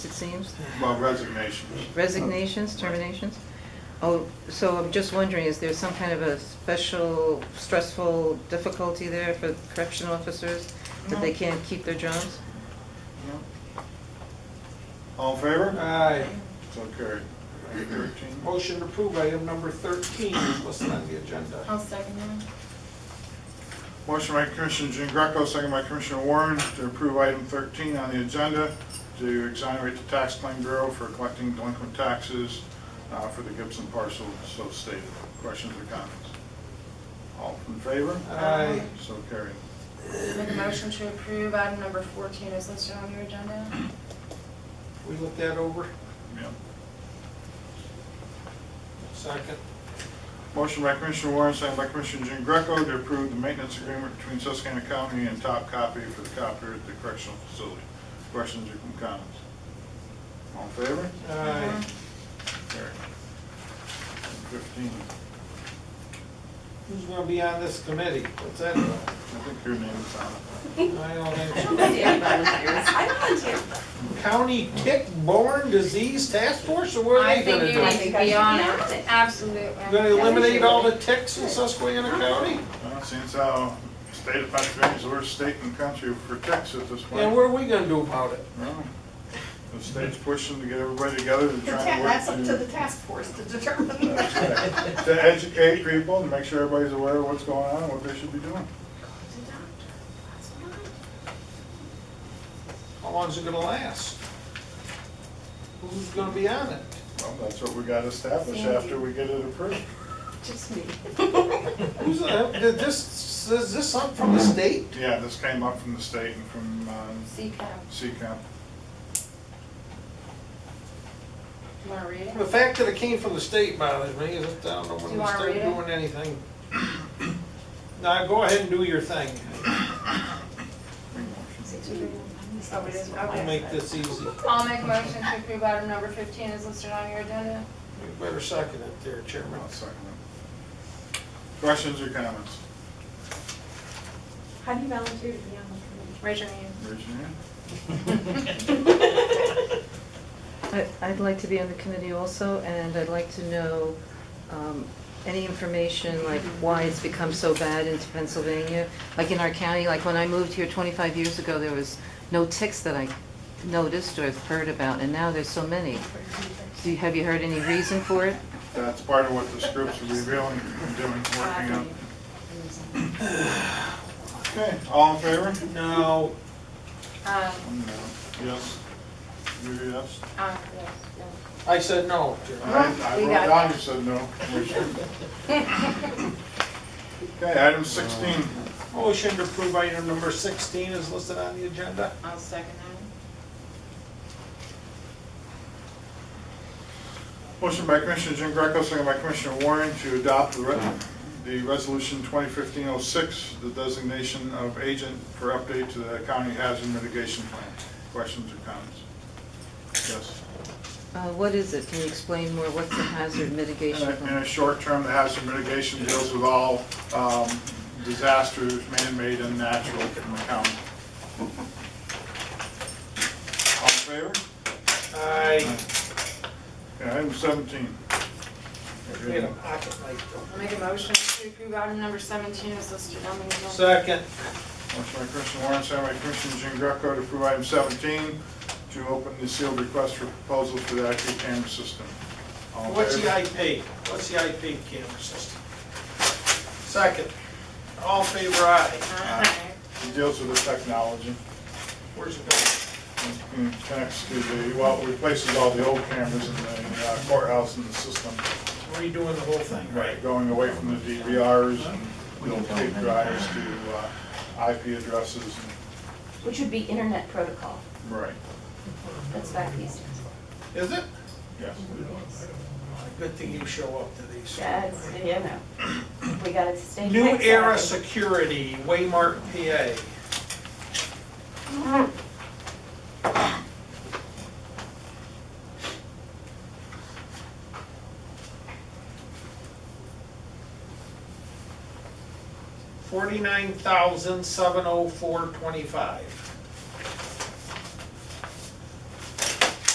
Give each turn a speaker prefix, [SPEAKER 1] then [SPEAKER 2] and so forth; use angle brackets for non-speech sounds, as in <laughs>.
[SPEAKER 1] it seems,
[SPEAKER 2] Well, resignation.
[SPEAKER 1] resignations, terminations. Oh, so I'm just wondering, is there some kind of a special stressful difficulty there for correction officers? That they can't keep their jobs? No.
[SPEAKER 2] All in favor?
[SPEAKER 3] Aye.
[SPEAKER 2] So carried. Item 13.
[SPEAKER 3] Motion to approve item number 13 is listed on the agenda.
[SPEAKER 4] I'll second that.
[SPEAKER 2] Motion by Commissioner Jean Greco, second by Commissioner Warren to approve item 13 on the agenda to exonerate the tax claim bureau for collecting delinquent taxes uh, for the Gibson parcel so stated. Questions or comments? All in favor?
[SPEAKER 3] Aye.
[SPEAKER 2] So carried.
[SPEAKER 4] Make a motion to approve item number 14 is listed on your agenda.
[SPEAKER 3] We look that over?
[SPEAKER 2] Yep.
[SPEAKER 3] Second.
[SPEAKER 2] Motion by Commissioner Warren, second by Commissioner Jean Greco to approve the maintenance agreement between Susquehanna County and Top Copy for the copier at the correctional facility. Questions or comments? All in favor?
[SPEAKER 3] Aye.
[SPEAKER 2] Carried. Fifteen,
[SPEAKER 3] Who's going to be on this committee? What's that about?
[SPEAKER 2] I think your name is on it.
[SPEAKER 3] I don't think so.
[SPEAKER 5] I volunteer.
[SPEAKER 3] County Tick-Borne Disease Task Force, or what are
[SPEAKER 4] I
[SPEAKER 3] they going to
[SPEAKER 4] think you
[SPEAKER 3] do?
[SPEAKER 4] need to be on it, absolutely.
[SPEAKER 3] You Going to eliminate all the ticks in Susquehanna County?
[SPEAKER 2] Well, Since our state of Pennsylvania is the worst state in the country for ticks at this point.
[SPEAKER 3] And what are we going to do about it?
[SPEAKER 2] Well, The state's pushing to get everybody together to try and work.
[SPEAKER 5] That's up to the task force to determine.
[SPEAKER 2] That's right. To educate people and make sure everybody's aware of what's going on, and what they should be doing.
[SPEAKER 3] How long is it going to last? Who's going to be on it?
[SPEAKER 2] Well, that's what we got established after we get it approved.
[SPEAKER 5] Just me.
[SPEAKER 3] Who's, uh, did this, is this up from the state?
[SPEAKER 2] Yeah, this came up from the state and from um,
[SPEAKER 4] CCAP.
[SPEAKER 2] CCAP.
[SPEAKER 4] You want to read it?
[SPEAKER 3] The fact that it came from the state bothers me, is it, I don't know
[SPEAKER 4] Do
[SPEAKER 3] when
[SPEAKER 4] you
[SPEAKER 3] we
[SPEAKER 4] wanna
[SPEAKER 3] start
[SPEAKER 4] read it?
[SPEAKER 3] doing anything. Now, go ahead and do your thing.
[SPEAKER 4] Oh, it is?
[SPEAKER 3] I'll
[SPEAKER 4] Okay.
[SPEAKER 3] make this easy. You
[SPEAKER 4] I'll make a motion to approve item number 15 is listed on your agenda.
[SPEAKER 3] better second it there, Chairman.
[SPEAKER 2] I'll second it. Questions or comments?
[SPEAKER 5] How do you volunteer to be on
[SPEAKER 4] Raise your hand.
[SPEAKER 2] Raise your hand.
[SPEAKER 5] the committee?
[SPEAKER 1] I- I'd like to be on the committee also, and I'd like to know um, any information, like why it's become so bad in Pennsylvania. Like in our county, like when I moved here 25 years ago, there was no ticks that I noticed or heard about, and now there's so many. Do you- Have you heard any reason for it?
[SPEAKER 2] That's part of what this group's revealing, and doing, working on. Okay, all in favor?
[SPEAKER 3] No,
[SPEAKER 4] Um,
[SPEAKER 2] One no. Yes. You're a yes?
[SPEAKER 4] um, yes,
[SPEAKER 3] I said no, Chairman.
[SPEAKER 2] I I
[SPEAKER 4] We
[SPEAKER 2] wrote
[SPEAKER 4] got
[SPEAKER 2] down,
[SPEAKER 4] that.
[SPEAKER 2] you said no. Commissioner.
[SPEAKER 4] <laughs>
[SPEAKER 2] Okay, item 16.
[SPEAKER 3] Motion to approve item number sixteen is listed on the agenda.
[SPEAKER 4] I'll second that.
[SPEAKER 2] Motion by Commissioner Jean Greco, second by Commissioner Warren to adopt the re- the Resolution 2015-06, the designation of agent for update to the county hazard mitigation plan. Questions or comments? Yes.
[SPEAKER 1] Uh, What is it? Can you explain more? What's the hazard
[SPEAKER 2] In
[SPEAKER 1] mitigation
[SPEAKER 2] a- in
[SPEAKER 1] plan?
[SPEAKER 2] a short term, the hazard mitigation deals with all um, disasters, man-made and natural, in the county. All in favor?
[SPEAKER 3] I
[SPEAKER 2] Okay, Item 17.
[SPEAKER 3] made a pocket knife.
[SPEAKER 4] I'll make a motion to approve item number 17 is listed on the agenda.
[SPEAKER 3] Second,
[SPEAKER 2] Motion by Commissioner Warren, second by Commissioner Jean Greco to approve item 17, to open the sealed request for proposal for the IP camera system. All in
[SPEAKER 3] what's
[SPEAKER 2] favor?
[SPEAKER 3] the IP? What's the IP camera system? Second, all in favor aye.
[SPEAKER 4] Aye.
[SPEAKER 2] It deals with the technology,
[SPEAKER 3] Where's it going?
[SPEAKER 2] and connects to the, well, it replaces all the old cameras in the uh, courthouse and the system,
[SPEAKER 3] Redoing the whole thing, right?
[SPEAKER 2] going away from the DVRs and the tape drives to uh, IP addresses. and-
[SPEAKER 5] Which would be internet protocol.
[SPEAKER 2] Right,
[SPEAKER 5] That's what he stands
[SPEAKER 3] Is it? Oh,
[SPEAKER 2] yes.
[SPEAKER 3] Good thing you show up to these.
[SPEAKER 5] That's, you know, we got to stay.
[SPEAKER 3] New
[SPEAKER 5] fixed
[SPEAKER 3] Era
[SPEAKER 5] on it.
[SPEAKER 3] Security, Waymark, PA. Forty-nine thousand, seven oh four, twenty-five.